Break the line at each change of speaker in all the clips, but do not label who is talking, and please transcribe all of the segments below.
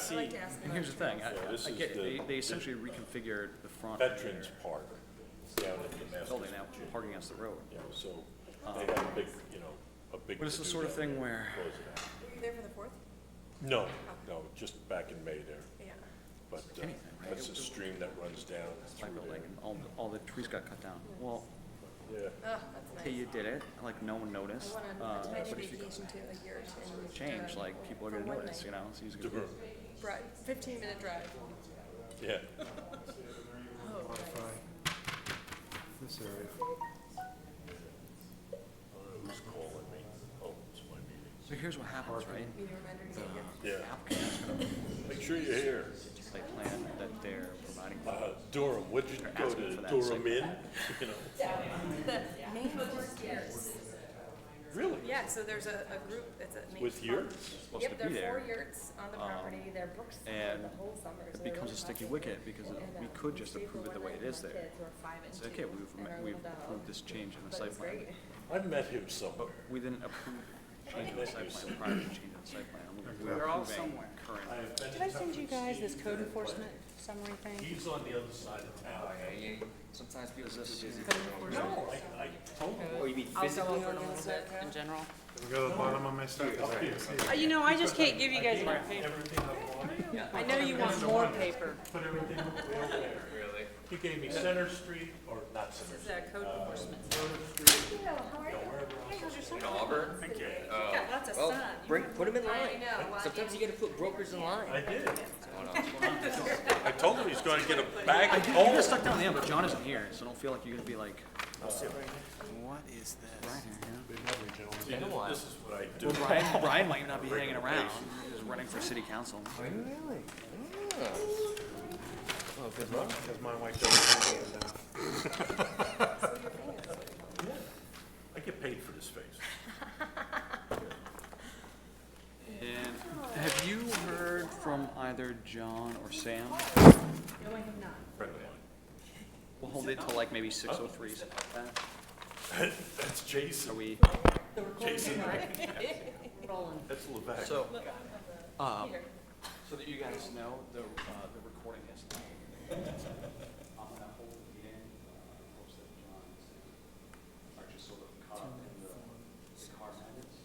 see,
like to ask
And here's the thing, I,
Yeah, this
I
is
get, it.
the-
they, they essentially reconfigured the front of
Veterans
their
Park down at the Masters
building now,
Gym.
parking against the road.
Yeah, so they had a big, you know, a big.
But it's the
to-do
sort of
down there
thing
to
where-
close it out.
Were you there for the fourth?
No, no, just back in May there,
Yeah.
but uh,
Anything, right?
that's a stream that runs down
Like,
through there.
like, all, all the trees got cut down. Well,
Yeah,
Oh, that's
hey,
nice.
you did it, like, no one
I
noticed.
went on
Uh,
a tiny
but if you
vacation to a yurt and.
change,
uh,
like, people are gonna
for one
notice,
night.
you know, so he's gonna.
Sure.
Right, fifteen minute drive.
yeah,
Oh, nice.
This area.
who's calling me? Oh, it's my meeting.
So here's what happens, right?
Meeting reminder, you said, yeah.
Yeah,
Applicant has gonna
make sure you're here.
site plan that they're providing. for.
Uh, Durham, what'd you
They're
go
asking
to
for that
Durham
second
in? You know,
The main course years.
really?
Yeah, so there's a, a group, it's a. main
With
farm.
yurts?
Supposed to
Yep, there
be
are
there. Um,
four yurts on the property, they're brooks
and
the whole summer. so they're
It becomes a
really
sticky
classy.
wicket because it-
And,
we
uh,
could just
we stayed for
approve it the
one
way
night
it
with
is
my
there.
kids, who are five and
Say, okay,
two,
we've,
and
ma-
our
we've
little dog.
approved this change in
But
the
it
site
was
plan.
great.
I've met him somewhere.
We didn't approve changing the site plan prior to changing the site plan. We're all somewhere. Current.
Did I send you guys this code enforcement summary thing?
He's on the other side of town.
Oh, Sometimes people are too busy.
No, I, I told him.
Oh, you mean physically organize it?
In general.
We go to the bottom of my stack.
Uh, you know, I just can't give you guys more paper.
Everything up on,
I know you want more paper.
put everything way over there.
Really?
He gave me Center Street, or not Center Street. uh,
This is a code enforcement.
Thank you, how are you? Hey, how's your summer?
In Auburn?
Thank you. got lots of
Well,
sun.
bring, put them
I
in line.
know, why
Sometimes you gotta put brokers in line.
I did. I told him he's gonna get a bag
I
of
do, you got stuck down the end, but John isn't here, so don't feel like you're gonna be like,
What is this?
Brian here, yeah?
Been a while.
This is what I do.
Brian, Brian might not be hanging around, he's running for city council.
Really? Oh, good luck.
Cause my wife doesn't want me to die.
I get paid for this face.
And have you heard from either John or Sam?
No, I have not.
Friend of mine.
We'll hold it till like maybe six oh three, something like that.
That's
Are
Jason.
we,
Jason,
Roland.
that's Levesque.
so, um, so that you guys know, the, uh, the recording is. live. I'm gonna hold the meeting, uh, hopes that John and Sam are just sort of caught up in the, the car Um, habits.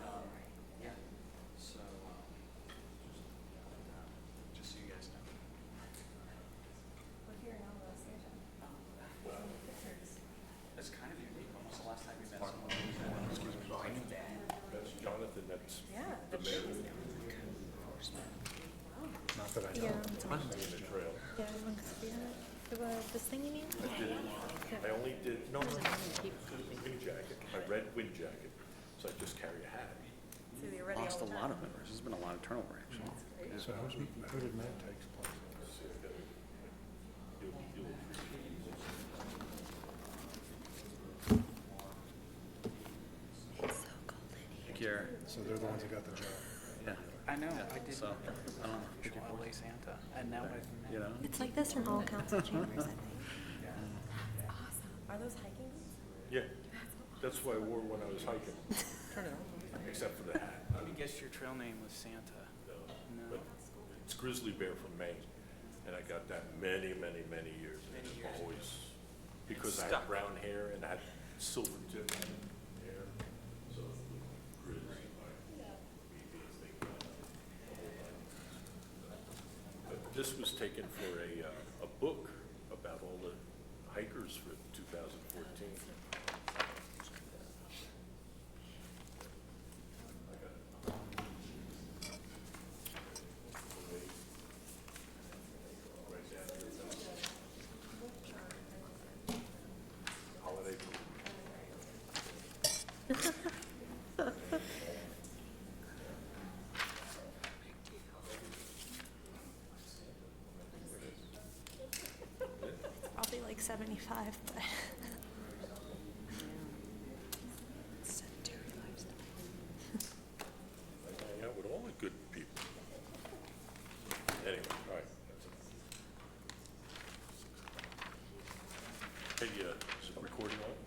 um, So, um, uh, just so you guys know. It's kind of unique, when was the last time you met someone? who's had-
That's Jonathan, that's
Yeah, the big is down.
Yeah,
in the trail.
yeah, I want to be on it. The, uh, this thing you mean?
I did, I only did, no, no, no, the wind jacket, my red wind jacket, so I just carry a hat.
So you're ready all
Lost a
the time.
lot of members, there's been a lot of turnover, actually.
So who's, who did Matt take place?
You'll, you'll appreciate it.
I think you're,
So they're the ones that got the job.
yeah,
I know, I did
so, I don't know. if you're-
LA Santa, and now I've met.
You know?
It's like this in all council chambers, I think.
Are those hiking boots?
Yeah, that's what I wore when I was hiking. Except for the hat.
Let me guess your trail name was Santa. No.
But it's grizzly bear from Maine, and I got that many, many, many years. and it Always, because I had brown hair and I had silver tip hair, so grizzly bear. But This was taken for a, uh, a book about all the hikers for two thousand fourteen. Holiday book.
I'll be like seventy-five, but.
uh,